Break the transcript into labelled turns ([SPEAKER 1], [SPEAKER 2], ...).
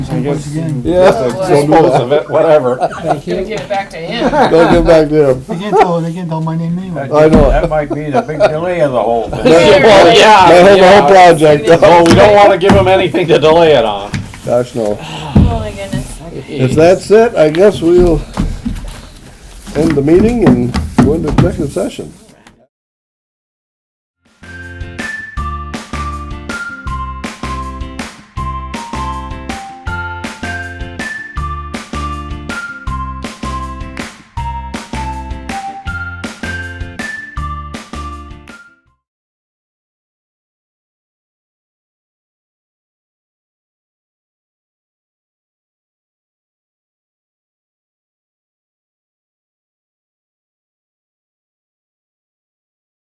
[SPEAKER 1] I guess
[SPEAKER 2] again.
[SPEAKER 1] you
[SPEAKER 3] Yeah.
[SPEAKER 1] have to
[SPEAKER 3] Well,
[SPEAKER 1] dispose of it, whatever.
[SPEAKER 2] They
[SPEAKER 4] Gonna
[SPEAKER 2] can't,
[SPEAKER 4] give it back to him.
[SPEAKER 3] Don't get back to him.
[SPEAKER 2] they can't tell, they can't tell my name anyway.
[SPEAKER 3] I know it.
[SPEAKER 1] That might be the big delay of the whole thing.
[SPEAKER 4] Yeah,
[SPEAKER 3] Well,
[SPEAKER 4] right.
[SPEAKER 3] yeah, The whole, the whole project.
[SPEAKER 1] No, we don't wanna give them anything to delay it on.
[SPEAKER 3] Gosh, no.
[SPEAKER 4] Oh my goodness.
[SPEAKER 3] If that's it, I guess we'll end the meeting and go into executive session.